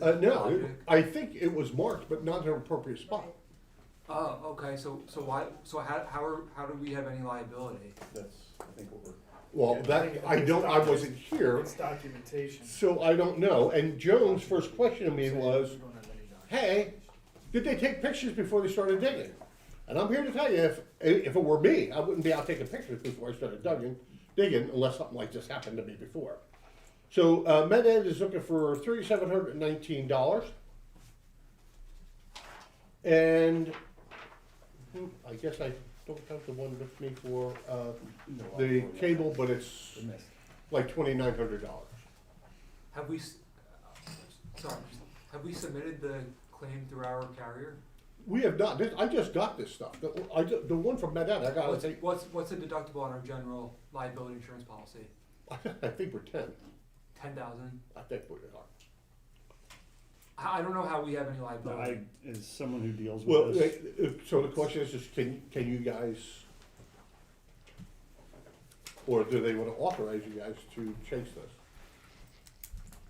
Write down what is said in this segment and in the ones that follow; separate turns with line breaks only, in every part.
Uh, no, it-
Logic.
I think it was marked, but not in an appropriate spot.
Oh, okay, so, so why, so how, how are, how do we have any liability?
That's, I think what we're.
Well,
Yeah,
that, I don't, I wasn't here,
It's documentation.
so I don't know. And Jones' first question to me was, hey, did they take pictures before they started digging? And I'm here to tell you, if, if it were me, I wouldn't be out taking pictures before I started digging, digging unless something like this happened to me before. So, uh, Med Ed is looking for thirty-seven hundred and nineteen dollars. And, hmm, I guess I don't have the one with me for, uh, the cable, but it's
The mist.
like twenty-nine hundred dollars.
Have we, s- sorry, have we submitted the claim through our carrier?
We have not, this, I just got this stuff, the, I, ju- the one from Med Ed, I gotta
What's,
take,
what's, what's the deductible on our general liability insurance policy?
I think we're ten,
Ten thousand?
I think we are.
I, I don't know how we have any
I,
liability.
as someone who deals
Well,
with this,
uh, uh, so the question is, is can, can you guys, or do they wanna authorize you guys to chase this?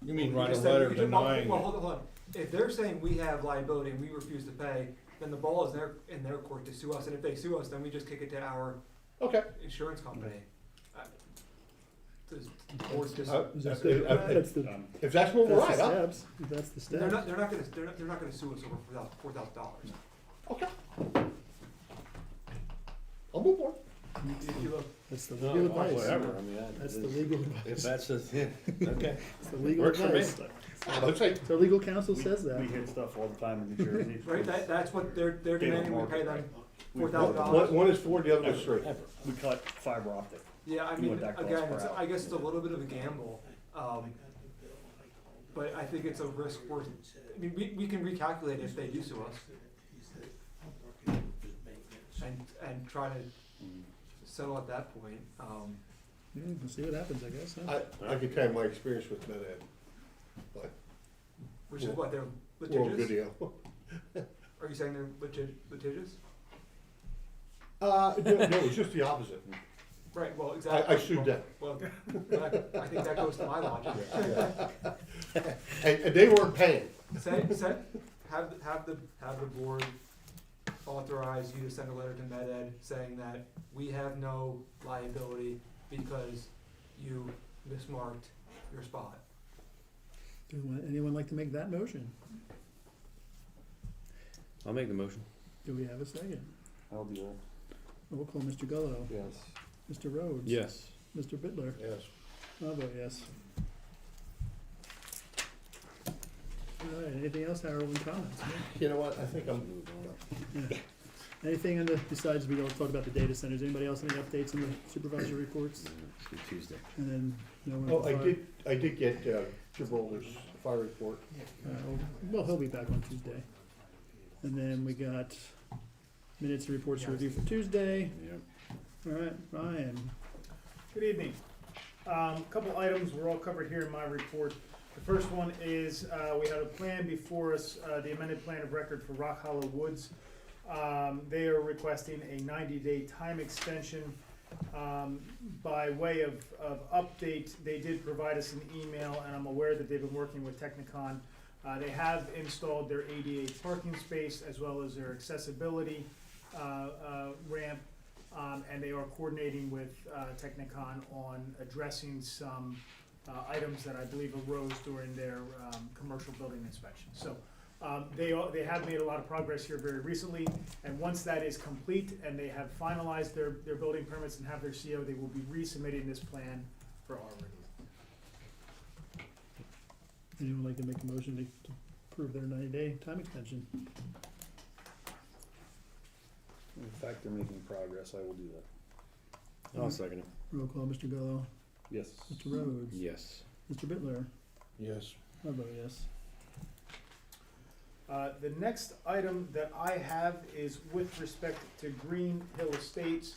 You mean
You
write a
just said-
letter
you just- well,
denying
Well,
it?
hold on, hold on. If they're saying we have liability and we refuse to pay, then the ball is in their, in their court to sue us, and if they sue us, then we just kick it to our
Okay.
insurance company. Uh, Does the board dis-
Uh,
dis-
uh, uh,
They're
that's the,
Um,
If that's where we're
that's the
at, huh?
steps, that's the steps.
not, they're not gonna, they're not, they're not gonna sue us over four thousand, four thousand dollars.
okay. I'll move on.
If you look,
That's the
No,
um,
legal
Oh,
advice.
Whatever, I mean, I-
That's the legal advice.
if that's just, yeah, okay.
That's the legal
Works for me.
advice.
Let's say,
So legal counsel
we-
says that.
We hit stuff all the time in New Jersey.
right, that, that's what they're, they're
Cable
demanding we pay
market,
them
right.
four
We've-
thousand
one,
dollars.
one is four, the other is three.
Ever, ever. We cut fiber optic.
Yeah, I
what
mean,
that costs
again,
per
it's,
hour.
I guess it's a little bit of a gamble, um, but I think it's a risk worth, I mean, we, we can recalculate if they do sue us. And, and try to settle at that point, um,
Yeah, we'll see what happens, I guess, huh?
I, I can tell you my experience with Med Ed, but
which is
Well,
what, they're
we're on
litigious?
video.
Are you saying they're litig- litigious?
Uh, no, no, it's just the opposite.
Right, well, exactly.
I sued them.
Well, well, I I think that goes to my logic.
And, and they weren't paying.
Send, send, have, have the, have the board authorize you to send a letter to Med Ed saying that we have no liability because you mismarked your spot.
Do we- anyone like to make that motion?
I'll make the motion.
Do we have a second?
I'll do that.
We'll call Mr. Gullo,
Yes.
Mr. Rhodes.
Yes.
Mr. Bitler.
Yes.
I'll vote yes. All right, anything else, Harold, in comments?
You know what, I think I'm,
Anything on the, besides we all talk about the data centers, anybody else any updates on the supervisor reports?
Tuesday.
And then, no one.
oh, I did, I did get, uh, Gibraltar's fire report.
Uh, Well, he'll be back on Tuesday. And then we got minutes and reports to review for Tuesday.
Yeah.
All right, Ryan,
Good evening. Um, couple items were all covered here in my report. The first one is, uh, we had a plan before us, uh, the amended plan of record for Rock Hollow Woods. Um, they are requesting a ninety-day time extension. Um, by way of, of update, they did provide us an email, and I'm aware that they've been working with Technicon. Uh, they have installed their ADA parking space as well as their accessibility, uh, uh, ramp. Um, and they are coordinating with, uh, Technicon on addressing some, uh, items that I believe arose during their, um, commercial building inspection. So, um, they are, they have made a lot of progress here very recently, and once that is complete and they have finalized their, their building permits and have their CO, they will be resubmitting this plan for our review.
anyone like to make a motion to- to approve their ninety-day time extension?
In fact, they're making progress. I will do that.
I'll
second it.
Roll call, Mr. Gallo,
Yes.
Mr. Rhodes,
Yes.
Mr. Bitler,
Yes.
I vote yes.
Uh, the next item that I have is with respect to Green Hill Estates.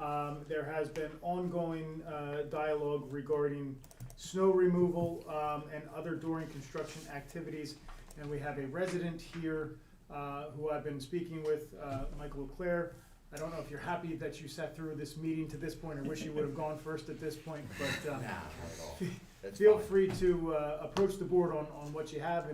Um, there has been ongoing, uh, dialogue regarding snow removal, um, and other during construction activities. And we have a resident here, uh, who I've been speaking with, uh, Michael Leclerc. I don't know if you're happy that you sat through this meeting to this point, I wish you would have gone first at this uh, point, but, um, feel free to, uh, approach the board on, on what you have